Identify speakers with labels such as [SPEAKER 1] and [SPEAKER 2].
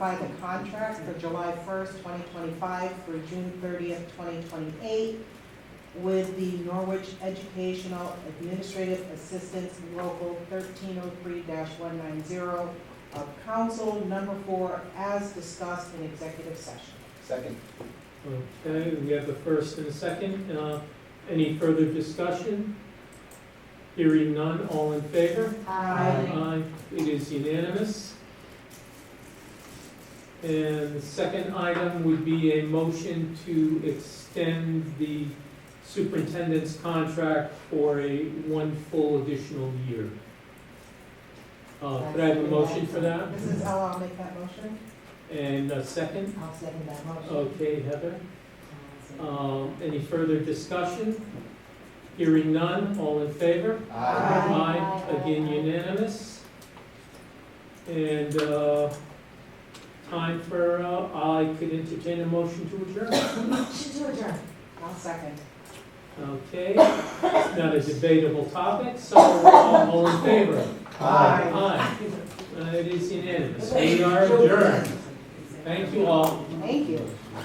[SPEAKER 1] by the contract for July first, twenty twenty-five through June thirtieth, twenty twenty-eight with the Norwich Educational Administrative Assistance Local thirteen oh three one nine zero of Council Number Four as discussed in executive session.
[SPEAKER 2] Second.
[SPEAKER 3] Okay, we have the first and a second. Uh, Any further discussion? Hearing none, all in favor? Aye, it is unanimous. And the second item would be a motion to extend the superintendent's contract for a one full additional year. Uh, Could I have a motion for that?
[SPEAKER 1] Mrs. L, I'll make that motion.
[SPEAKER 3] And a second?
[SPEAKER 4] I'll second that motion.
[SPEAKER 3] Okay, Heather? Um, Any further discussion? Hearing none, all in favor?
[SPEAKER 1] Aye.
[SPEAKER 3] Again unanimous. And uh, time for, uh, I could entertain a motion to adjourn.
[SPEAKER 4] Motion to adjourn.
[SPEAKER 1] I'll second.
[SPEAKER 3] Okay, it's not a debatable topic, so uh, all in favor?
[SPEAKER 1] Aye.
[SPEAKER 3] Aye. Uh, It is unanimous. We are adjourned. Thank you all.
[SPEAKER 1] Thank you.